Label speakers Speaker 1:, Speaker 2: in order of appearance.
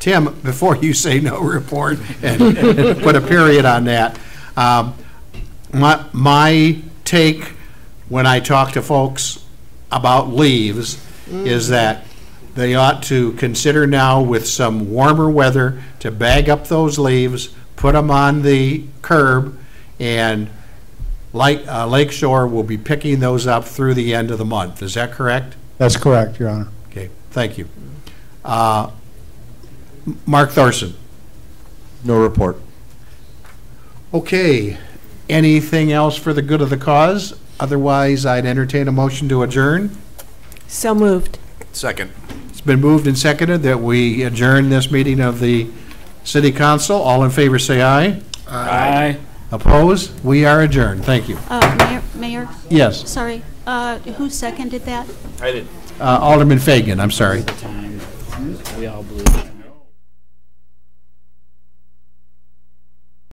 Speaker 1: Tim, before you say no report and and put a period on that, um, my, my take when I talk to folks about leaves is that they ought to consider now with some warmer weather to bag up those leaves, put them on the curb, and Lake, uh, Lake Shore will be picking those up through the end of the month. Is that correct?
Speaker 2: That's correct, Your Honor.
Speaker 1: Okay, thank you. Uh, M- Mark Thorson?
Speaker 3: No report.
Speaker 1: Okay, anything else for the good of the cause? Otherwise, I'd entertain a motion to adjourn.
Speaker 4: So moved.
Speaker 3: Second.
Speaker 1: It's been moved and seconded that we adjourn this meeting of the city council. All in favor, say aye.
Speaker 3: Aye.
Speaker 1: Opposed? We are adjourned. Thank you.
Speaker 5: Uh, Mayor- Mayor,
Speaker 1: Yes,
Speaker 5: sorry, uh, who seconded that?
Speaker 1: uh, Alderman Fagan, I'm sorry.
Speaker 6: time. We all blew it.